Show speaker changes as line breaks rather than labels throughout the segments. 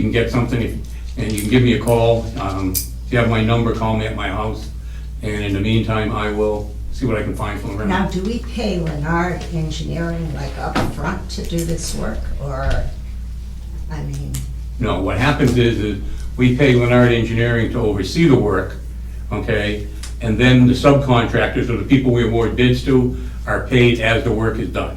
You can get something, if- and you can give me a call. Um, If you have my number, call me at my house, and in the meantime, I will see what I can find from
Now,
around.
do we pay Leonard Engineering like up front to do this work, or, I mean,
No, what happens is, is we pay Leonard Engineering to oversee the work, okay? And then the subcontractors, or the people we award bids to, are paid as the work is done.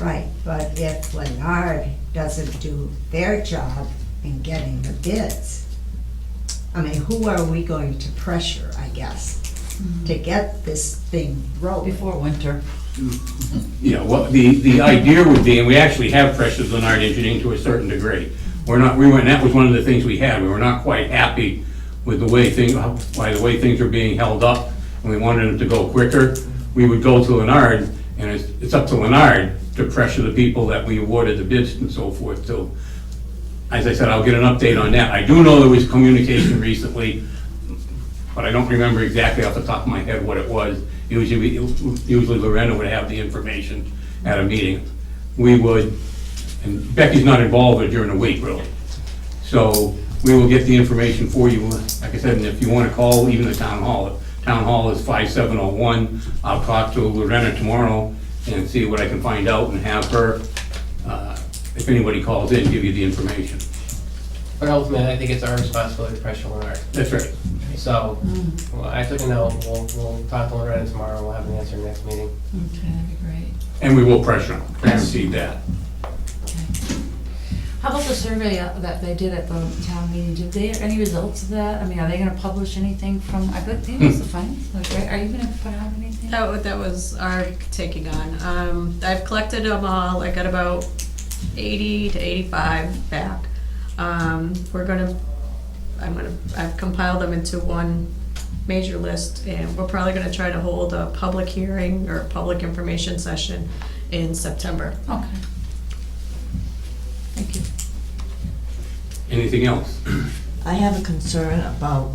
right, but if Leonard doesn't do their job in getting the bids, I mean, who are we going to pressure, I guess,
Mm-hmm.
to get this thing rolling?
Before winter.
Yeah, well, the, the idea would be, and we actually have pressures on our engineering to a certain degree. We're not, we were, and that was one of the things we had, we were not quite happy with the way things, by the way things are being held up, and we wanted them to go quicker. We would go to Leonard, and it's, it's up to Leonard to pressure the people that we awarded the bids and so forth to. As I said, I'll get an update on that. I do know there was communication recently but I don't remember exactly off the top of my head what it was. Usually, we- usually Lorena would have the information at a meeting. We would, and Becky's not involved during the week, really. So we will get the information for you, like I said, and if you want to call even the town hall, town hall is 5701. I'll talk to Lorena tomorrow and see what I can find out and have her, uh, if anybody calls in, give you the information.
But ultimately, I think it's our responsibility to pressure Leonard.
That's right.
So,
Mm-hmm.
well, I took a note, we'll, we'll talk to Leonard tomorrow, we'll have an answer next meeting.
Okay, that'd be great.
And we will pressure them, guaranteed that.
How about the survey uh, that they did at the town meeting? Did they, any results of that? I mean, are they gonna publish anything from, I bet they must have findings, like, right? Are you gonna put out anything?
That, wa- that was our taking on. Um, I've collected them all, I got about eighty to eighty-five back. Um, we're gonna, I'm gonna, I've compiled them into one major list, and we're probably gonna try to hold a public hearing or a public information session in September.
Okay. Thank you.
Anything else?
I have a concern about,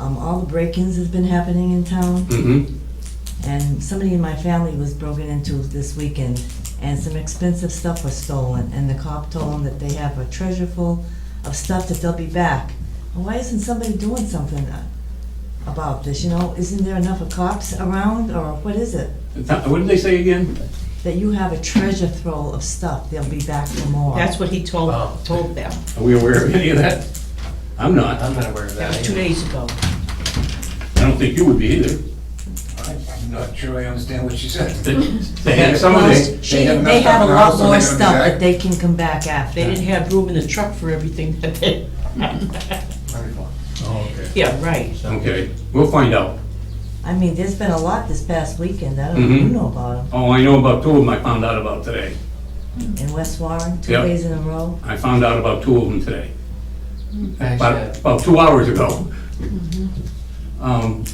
um, all the break-ins that's been happening in town,
Mm-hmm.
and somebody in my family was broken into this weekend, and some expensive stuff was stolen, and the cop told them that they have a treasure full of stuff that they'll be back. Well, Why isn't somebody doing something uh, about this, you know? Isn't there enough of cops around, or what is it?
What did they say again?
That you have a treasure trove of stuff, they'll be back for more.
That's what he told,
Wow.
told them.
Are we aware of any of that? I'm not. I
I'm not aware of
That
that.
was two
either.
days ago.
don't think you would be either.
I'm not sure I understand what she said.
They- They had some of the,
She,
have enough
they have a
stuff
lot
around, so
more
they're gonna be
stuff
back.
that they can come back after.
They didn't have room in the truck for everything that they,
Wonderful.
yeah, right.
okay, we'll find out.
I mean, there's been a lot this past weekend, I don't know if you
Mhm.
know about
Oh, I know about two of them I found out about today.
them, in West Warren, two
Yep.
days in a row.
I found out about two of them today, about,
Actually,
about two hours ago. Um,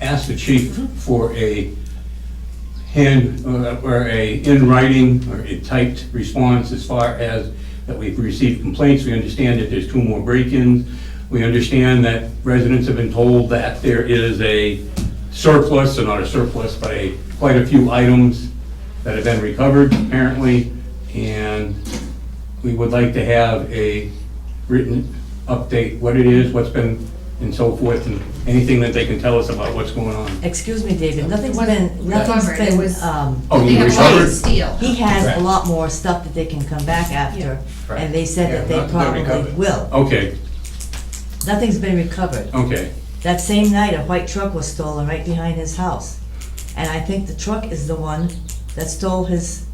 Asked the chief for a hand, uh, or a in writing, or a typed response as far as that we've received complaints, we understand that there's two more break-ins, we understand that residents have been told that there is a surplus, or not a surplus, but a, quite a few items that have been recovered apparently, and we would like to have a written update, what it is, what's been, and so forth, and anything that they can tell us about what's going on.
Excuse me, David, nothing's been, nothing's
Remember, it
been,
was-
um,
Oh,
They
you
have
recovered?
white steel.
he has
Correct.
a lot more stuff that they can come back after,
Correct.
and they said
Yeah,
that
not
they
that they're
probably
recovered.
will.
Okay,
Nothing's been
Oh.
recovered.
okay.
That same night, a white truck was stolen right behind his house, and I think the truck is the one that stole his,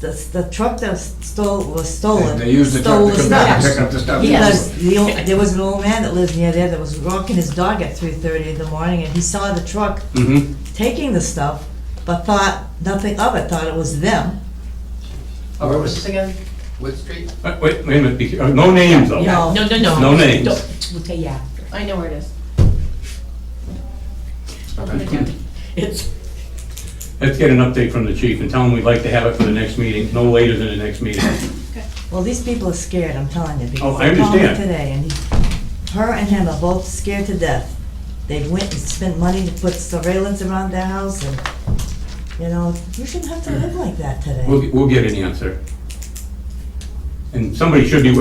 the, the truck that stole, was stolen,
They used the
stole
truck to come back and
stuff.
pick up the stuff.
Because the, old- there was an old man that lives near there that was walking his dog at three thirty in the morning, and he saw the truck
Mm-hmm.
taking the stuff, but thought nothing of it, thought it was them.
oh, where was this again? Wood Street?
Wait, wait wait a minute, because- uh, no names though.
No.
No, no, no.
No names.
Don't- We'll tell you after.
I know where it is.
It's,
Let's get an update from the chief and tell him we'd like to have it for the next meeting, no later than the next meeting.
Well, these people are scared, I'm telling you,
Oh,
because
I
they called me
understand.
today, and he- her and him are both scared to death. They went and spent money to put surveillance around their house, and, you know, you shouldn't have to live like that today.
We'll, we'll get an answer. And somebody should be,